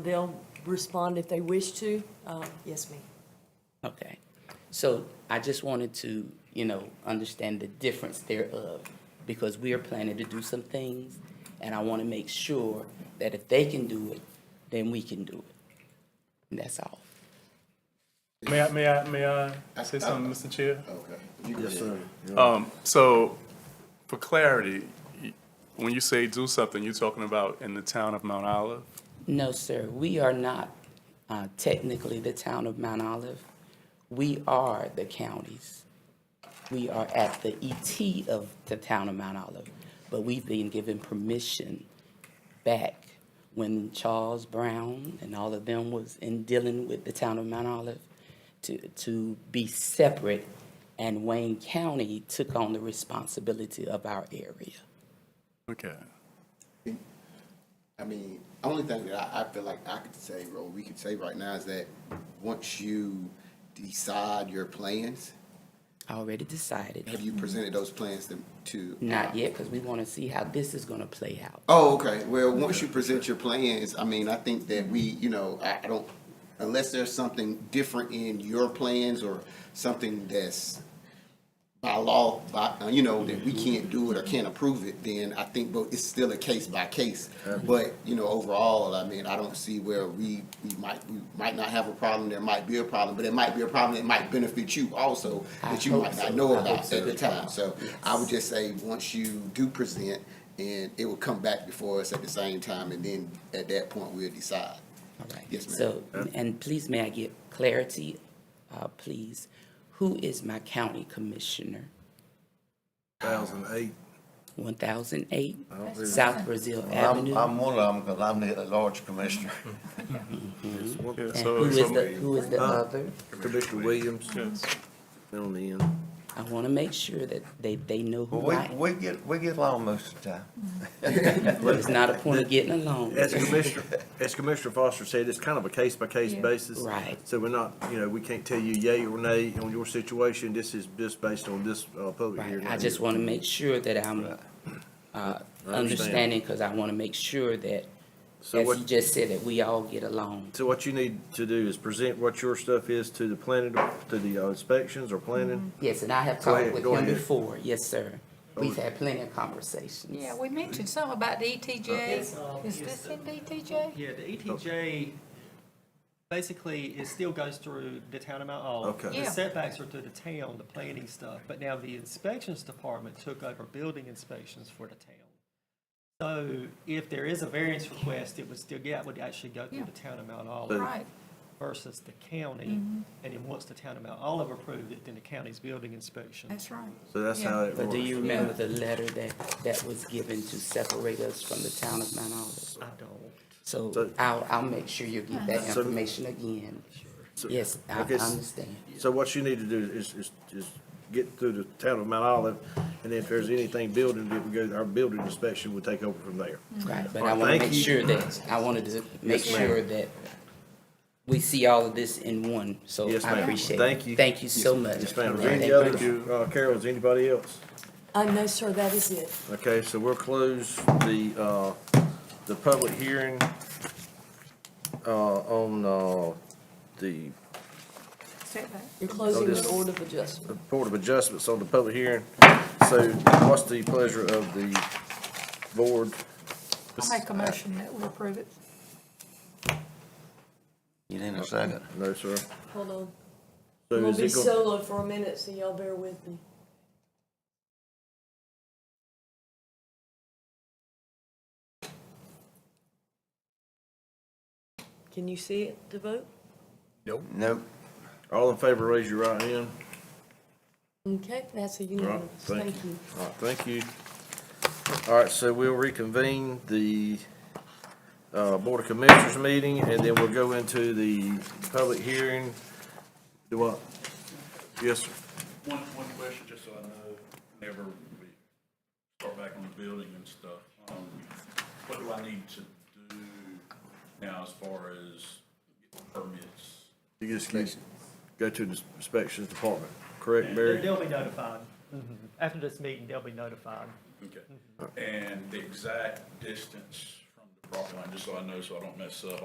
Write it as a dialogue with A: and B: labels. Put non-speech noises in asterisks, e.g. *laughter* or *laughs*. A: they'll respond if they wish to. Uh, Yes, ma'am.
B: Okay, so I just wanted to, you know, understand the difference thereof, because we are planning to do some things, and I want to make sure that if they can do it, then we can do it. And that's all.
C: May I, may I, may I say something, Mr. Chair?
D: Okay. Yes, sir.
C: So, for clarity, y- when you say do something, you're talking about in the town of Mount Olive?
B: No, sir, we are not uh, technically the town of Mount Olive. We are the counties. We are at the ET of the town of Mount Olive, but we've been given permission back when Charles Brown and all of them was in dealing with the town of Mount Olive to, to be separate, and Wayne County took on the responsibility of our area.
C: Okay.
D: I mean, only thing that I, I feel like I could say, or we could say right now is that once you decide your plans,
B: Already decided.
D: have you presented those plans to? to
B: Not yet, because we want to see how this is going to play out.
D: Oh, okay. Well, once you present your plans, I mean, I think that we, you know, I, I don't, unless there's something different in your plans or something that's by law, by, uh, you know, that we can't do it or can't approve it, then I think, but it's still a case by case. But, you know, overall, I mean, I don't see where we, we might, we might not have a problem, there might be a problem, but it might be a problem that might benefit you also,
B: I
D: that you
B: hope
D: might
B: so.
D: not know
B: I hope
D: about
B: so.
D: at the time. So I would just say, once you do present, and it will come back before us at the same time, and then at that point, we'll decide.
B: All right.
D: Yes, ma'am.
B: So, and please, may I get clarity, uh, please? Who is my county commissioner?
E: 2008.
B: One thousand eight,
E: don't think-
B: South Brazil
F: I'm,
B: Avenue?
F: I'm one of them because I'm the at-large commissioner.
C: Yeah,
B: And
C: so-
B: who is
C: so-
B: the, who is the uh, other?
E: Commissioner Williams,
C: Yes.
E: down on the end.
B: I want to make sure that they, they know who
F: We,
B: I am.
F: we get, we get along most of the time.
B: It's not a point of getting along. *laughs*
E: As Commissioner, as Commissioner Foster said, it's kind of a case-by-case basis.
B: Right.
E: So we're not, you know, we can't tell you yay or nay on your situation. This is just based on this uh, public
B: Right,
E: hearing.
B: I just want to make sure that I'm, uh, understanding, because I want to make sure that, as
E: So what-
B: you just said, that we all get along.
E: So what you need to do is present what your stuff is to the planning, to the uh, inspections or planning.
B: Yes, and I have
E: Go
B: talked
E: ahead,
B: with
E: go
B: him
E: ahead.
B: before, yes, sir. We've had plenty of conversations.
G: Yeah, we mentioned something about the ETJ. Is
H: Uh, yes,
G: this
H: uh,
G: in E ETJ?
H: Yeah, the ETJ, basically, it still goes through the town of Mount
B: Mm-hmm.
H: Olive.
E: Okay.
G: Yeah.
H: The setbacks are through the town, the planning stuff, but now the inspections department took over building inspections for the town. So if there is a variance request, it would still, yeah, it would actually go through
G: Yeah.
H: the town of Mount
E: But-
H: Olive
G: Right,
H: versus the county. And then once the town of Mount Olive approved it, then the county's building inspection.
G: that's right.
E: So that's
G: Yeah.
E: how it
B: But do you
E: works.
B: remember the letter that, that was given to separate us from the town of Mount Olive?
H: I don't.
B: So
E: So-
B: I'll, I'll make sure you get that
E: So-
B: information again.
E: So-
B: Yes, I I
E: okay, s-
B: understand.
E: So what you need to do is, is, is get through the town of Mount Olive, and if there's anything building, that we go, our building inspection will take over from there.
B: Right, but
E: All
B: I
E: right,
B: want to
E: thank
B: make
E: you.
B: sure that, I wanted to make sure that we see all of this in one, so
E: Yes,
B: I
E: ma'am.
B: appreciate it.
E: Thank you.
B: Thank you so much.
E: Yes, ma'am. Is there
B: Yeah,
E: any
B: thank you.
E: other, uh, Carol, is anybody else?
A: Uh, no, sir, that is it.
E: Okay, so we'll close the, uh, the public hearing, uh, on, uh, the
G: Setback.
A: You're closing the
E: this-
A: Board of Adjustment.
E: Board of Adjustments on the public hearing. So what's the pleasure of the board?
G: I'll make a motion that we approve it.
F: You need a second.
E: No, sir.
A: Hold on. I'm
E: So
A: gonna
E: is
A: be
E: it going,
A: solo for a minute, so y'all bear with me. Can you see it to vote?
F: Nope.
E: all in favor, raise your right hand.
A: Okay, that's a
E: All right,
A: unanimous, thank
E: thank you.
A: you.
E: All right, thank you. All right, so we'll reconvene the uh, Board of Commissioners meeting, and then we'll go into the public hearing. Do what? Yes, sir.
I: One, one question, just so I know, whenever we start back on the building and stuff, um, what do I need to do now as far as permits?
E: you just need to go to the inspections department, correct,
H: They-
E: Barry?
H: They'll be notified. Mm-hmm. After this meeting, they'll be notified.
C: Mm-hmm.
I: Okay. And the exact distance from the property line, just so I know, so I don't mess up.